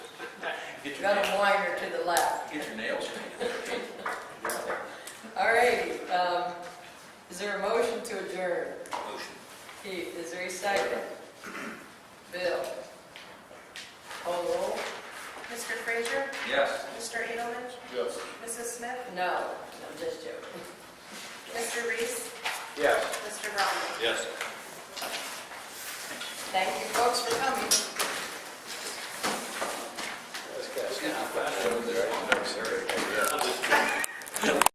Get your, Got nails- a whiner to the left. get your nails cleaned. All righty, um, is there a motion to adjourn? Motion. Keith, is there a second? Bill? Call roll? Mr. Frazier? Yes. Mr. Edelman? Yes. Mrs. Smith? No, I'm just joking. Mr. Reese? Yes. Mr. Romney? Yes. Thank you folks for coming.